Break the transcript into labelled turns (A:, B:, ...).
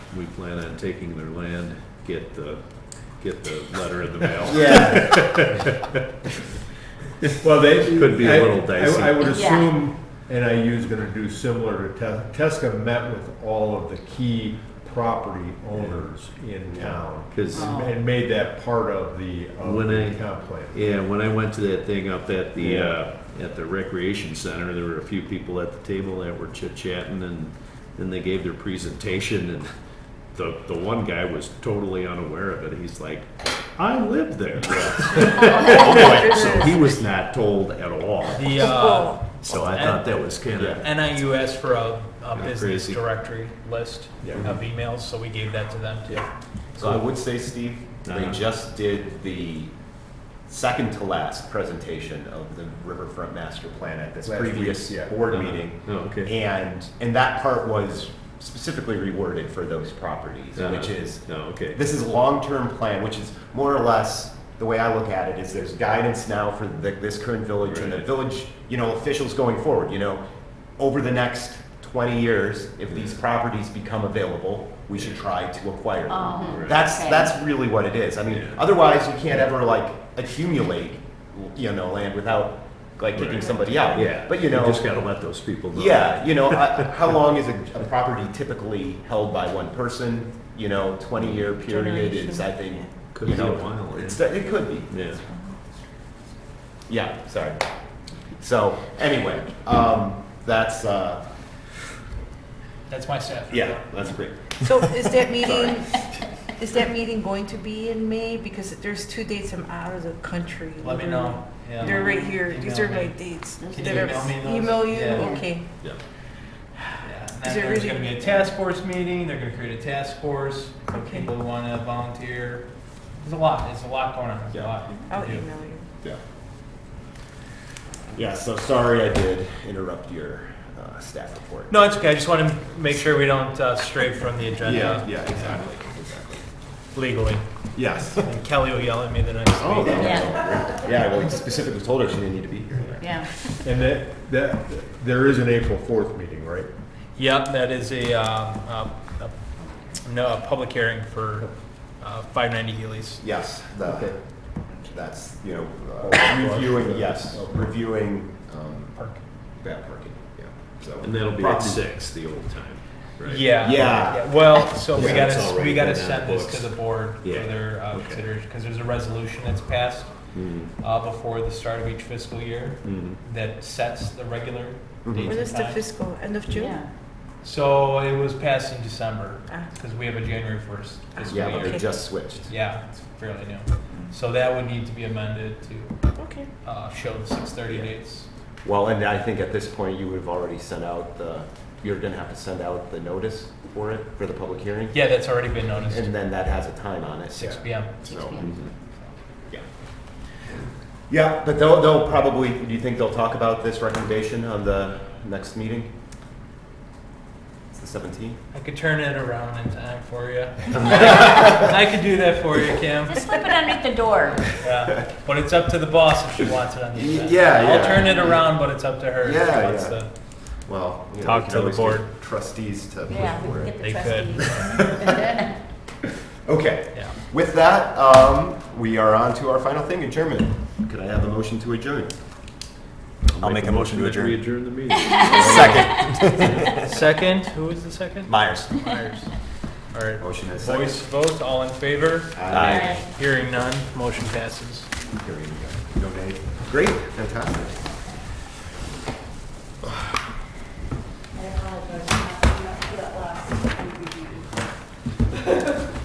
A: we plan on taking their land, get the, get the letter in the mail.
B: Yeah,
C: Well, they.
A: Could be a
C: I-
A: little
C: I-
A: dicey.
C: I would
D: Yeah.
C: assume NIU is gonna do similar to Tes- Tesca met with all of the key property owners in town.
A: Because,
D: Oh.
C: And made that part of the, of
A: When
C: the
A: I-
C: comp plan.
A: yeah, when I went to that thing up at the, uh, at the recreation center, there were a few people at the table that were chit-chatting and then they gave their presentation and the, the one guy was totally unaware of it. He's like, I live there. So he was not told at all.
E: The uh,
A: So I thought that was kind of,
E: NIU asked for a, a
A: Yeah,
E: business
A: crazy.
E: directory list of emails, so we gave that to them too.
F: So I would say, Steve, they
A: Uh-huh.
F: just did the second to last presentation of the Riverfront Master Plan at this
C: Last
F: previous
C: week, yeah.
F: board
A: Uh-huh.
F: meeting.
A: Oh, okay.
F: And, and that part was specifically reworded for those properties, which
A: Uh-huh.
F: is,
A: No, okay.
F: this is long-term plan, which is more or less, the way I look at it is there's guidance now for the, this current village and the
A: Right.
F: village, you know, officials going forward, you know. Over the next twenty years, if these properties become available, we should try to acquire
D: Oh,
F: them. That's,
D: okay.
F: that's really what it is. I mean,
A: Yeah.
F: otherwise you can't ever like accumulate, you know, land without like kicking
A: Right.
F: somebody out.
A: Yeah,
F: But you know.
A: just gotta let those people know.
F: Yeah, you know, I- how long is a, a property typically held by one person? You know, twenty-year period is, I think,
A: Could
F: you
A: be a
F: know,
A: while, yeah.
F: it's, it could be.
A: Yeah.
F: Yeah, sorry. So, anyway, um, that's, uh,
E: That's my staff.
F: yeah, that's great.
G: So is that meeting, is that meeting going to be in May? Because there's two dates I'm out of the country.
E: Let me know. Yeah.
G: They're right here. These are
E: Email me.
G: my dates.
E: Can
G: that
E: you
G: are-
E: email me those?
G: Email you?
E: Yeah.
G: Okay.
A: Yeah.
E: Yeah. And
G: Is
E: then
G: there
E: there's
G: really-
E: gonna be a task force meeting, they're gonna create a task force, if
G: Okay.
E: people wanna volunteer. There's a lot, there's a lot going on, there's a
F: Yeah.
E: lot.
G: I'll
E: to do.
G: email you.
F: Yeah. Yeah, so sorry I did interrupt your, uh, staff report.
E: No, it's okay, I just wanna make sure we don't uh, stray from the
F: Yeah,
E: agenda
F: yeah, exactly, exactly.
E: legally.
F: Yes.
E: And Kelly will yell at me the next
F: Oh,
E: week.
F: that was
D: Yeah.
F: all right. Yeah, well, I specifically told her she didn't need to be here.
D: Yeah.
C: And that, that, there is an April fourth meeting, right?
E: Yep, that is a, um, a- a- no, a public hearing for uh, 590 Healy's.
F: Yes,
C: Okay. Oh,
F: the, that's, you know, uh, reviewing, yes, reviewing, um,
E: Park.
F: that parking, yeah, so.
A: And that'll be at
F: Property-
A: six, the old time, right?
E: Yeah.
F: Yeah.
E: Well, so we
F: Yeah,
A: it's
E: gotta,
A: already
E: we gotta
A: been on
E: send
A: the
E: this
A: books.
E: to the board for
A: Yeah.
E: their uh,
A: Okay.
E: consideration, because there's a resolution that's passed
A: Mhm.
E: uh, before the start of each fiscal year
A: Mhm.
E: that sets the regular
A: Mm-hmm.
F: Mhm.
E: dates
G: When
E: and
G: is the
E: times.
G: fiscal? End of June?
D: Yeah.
E: So it was passed in December,
G: Ah.
E: because we have a January 1st fiscal
F: Yeah, but
E: year.
F: they just switched.
E: Yeah, it's fairly new. So that would need to be amended to
G: Okay.
E: uh, show the 6:30 dates.
F: Well, and I think at this point, you would have already sent out the, you're gonna have to send out the notice for it, for the public hearing.
E: Yeah, that's already been noticed,
F: And then that has a time on it.
E: 6
F: yeah.
E: PM.
D: Six
F: So,
D: p.m.
F: yeah. Yeah, but they'll, they'll probably, do you think they'll talk about this recommendation on the next meeting? It's the seventeenth?
E: I could turn it around in time for you. I could do that for you, Kim.
D: Just slip it underneath the door.
E: Yeah, but it's up to the boss if she wants it on the
F: Y-
E: agenda.
F: yeah,
E: I'll
F: yeah.
E: turn it around, but it's up to her. if she
F: Yeah,
E: wants
F: yeah.
E: to-
F: Well, you know,
E: Talk
F: we can
E: to the
F: always
E: board.
F: get Trustees to
D: Yeah,
F: push
D: we
F: for
D: can
F: it.
D: get the
E: They could.
D: trustees.
F: Okay.
E: Yeah.
F: With that, um, we are on to our final thing, adjournment. Could I have a motion to adjourn? I'll make a motion to
A: that we adjourn the meeting.
F: Second.
E: Second, who is the second?
F: Myers.
E: Myers. All right,
F: Motion is second.
E: voice vote, all in favor?
F: Aye.
D: Right.
E: Hearing none, motion passes.
F: Here we go. No nay. Great, fantastic.